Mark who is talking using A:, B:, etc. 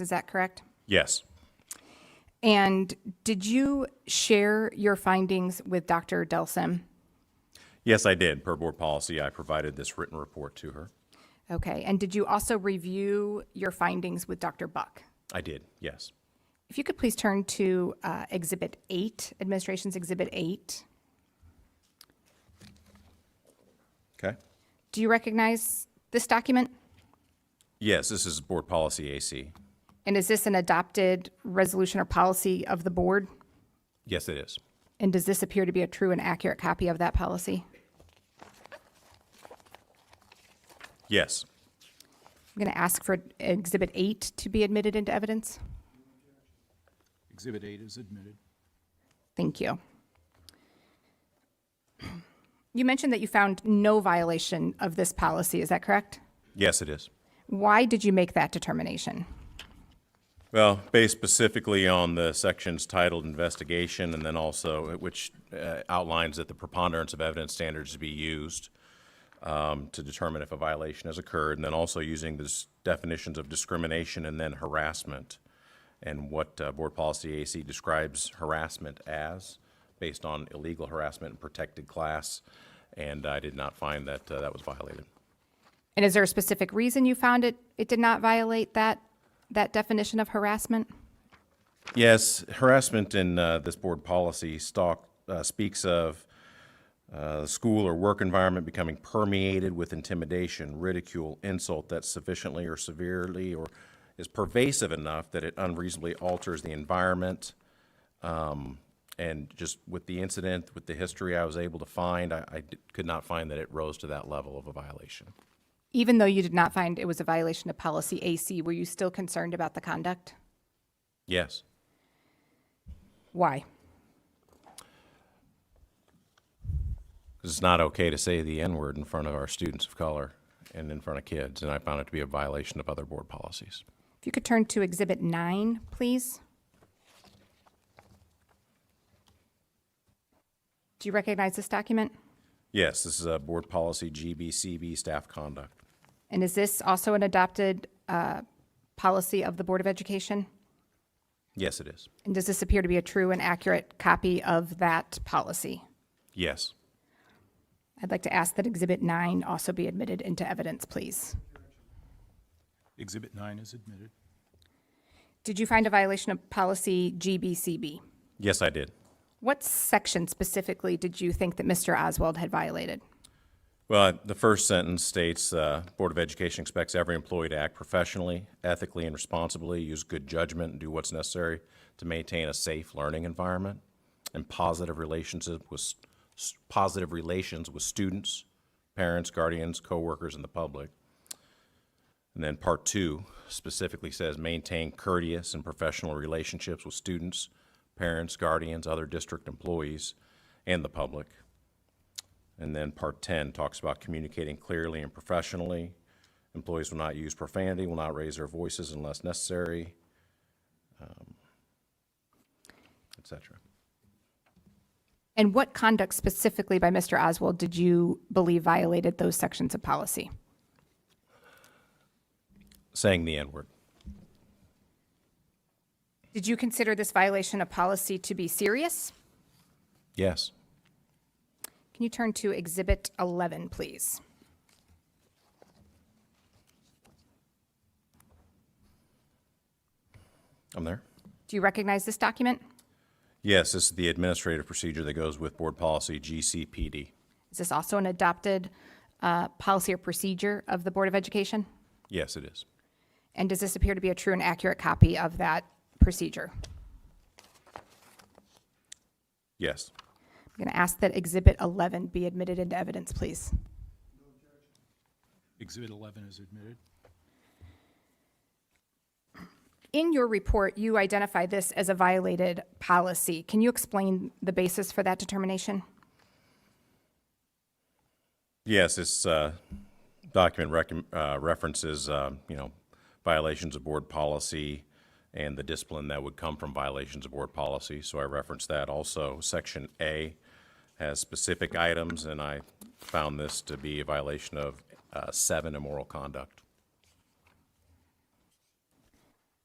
A: Is that correct?
B: Yes.
A: And did you share your findings with Dr. Delson?
B: Yes, I did. Per board policy, I provided this written report to her.
A: Okay, and did you also review your findings with Dr. Buck?
B: I did, yes.
A: If you could please turn to uh, Exhibit 8, Administration's Exhibit 8.
B: Okay.
A: Do you recognize this document?
B: Yes, this is board policy AC.
A: And is this an adopted resolution or policy of the board?
B: Yes, it is.
A: And does this appear to be a true and accurate copy of that policy?
B: Yes.
A: I'm going to ask for Exhibit 8 to be admitted into evidence.
C: Exhibit 8 is admitted.
A: Thank you. You mentioned that you found no violation of this policy, is that correct?
B: Yes, it is.
A: Why did you make that determination?
B: Well, based specifically on the sections titled investigation and then also which uh, outlines that the preponderance of evidence standards to be used um, to determine if a violation has occurred, and then also using the s- definitions of discrimination and then harassment and what uh, Board Policy AC describes harassment as, based on illegal harassment and protected class, and I did not find that uh, that was violated.
A: And is there a specific reason you found it, it did not violate that, that definition of harassment?
B: Yes, harassment in uh, this board policy stalk, uh, speaks of uh, the school or work environment becoming permeated with intimidation, ridicule, insult that sufficiently or severely or is pervasive enough that it unreasonably alters the environment. Um, and just with the incident, with the history I was able to find, I, I d- could not find that it rose to that level of a violation.
A: Even though you did not find it was a violation of policy AC, were you still concerned about the conduct?
B: Yes.
A: Why?
B: Because it's not okay to say the N-word in front of our students of color and in front of kids, and I found it to be a violation of other board policies.
A: If you could turn to Exhibit 9, please. Do you recognize this document?
B: Yes, this is a board policy GBCB staff conduct.
A: And is this also an adopted uh, policy of the Board of Education?
B: Yes, it is.
A: And does this appear to be a true and accurate copy of that policy?
B: Yes.
A: I'd like to ask that Exhibit 9 also be admitted into evidence, please.
C: Exhibit 9 is admitted.
A: Did you find a violation of policy GBCB?
B: Yes, I did.
A: What section specifically did you think that Mr. Oswald had violated?
B: Well, the first sentence states, uh, Board of Education expects every employee to act professionally, ethically, and responsibly, use good judgment, and do what's necessary to maintain a safe learning environment and positive relationship with, s- s- positive relations with students, parents, guardians, coworkers, and the public. And then part two specifically says maintain courteous and professional relationships with students, parents, guardians, other district employees, and the public. And then part 10 talks about communicating clearly and professionally. Employees will not use profanity, will not raise their voices unless necessary, um, et cetera.
A: And what conduct specifically by Mr. Oswald did you believe violated those sections of policy?
B: Saying the N-word.
A: Did you consider this violation of policy to be serious?
B: Yes.
A: Can you turn to Exhibit 11, please?
B: I'm there.
A: Do you recognize this document?
B: Yes, this is the administrative procedure that goes with board policy GCPD.
A: Is this also an adopted uh, policy or procedure of the Board of Education?
B: Yes, it is.
A: And does this appear to be a true and accurate copy of that procedure?
B: Yes.
A: I'm going to ask that Exhibit 11 be admitted into evidence, please.
C: Exhibit 11 is admitted.
A: In your report, you identify this as a violated policy. Can you explain the basis for that determination?
B: Yes, this uh, document recom- uh, references, uh, you know, violations of board policy and the discipline that would come from violations of board policy, so I referenced that also. Section A has specific items, and I found this to be a violation of uh, seven immoral conduct.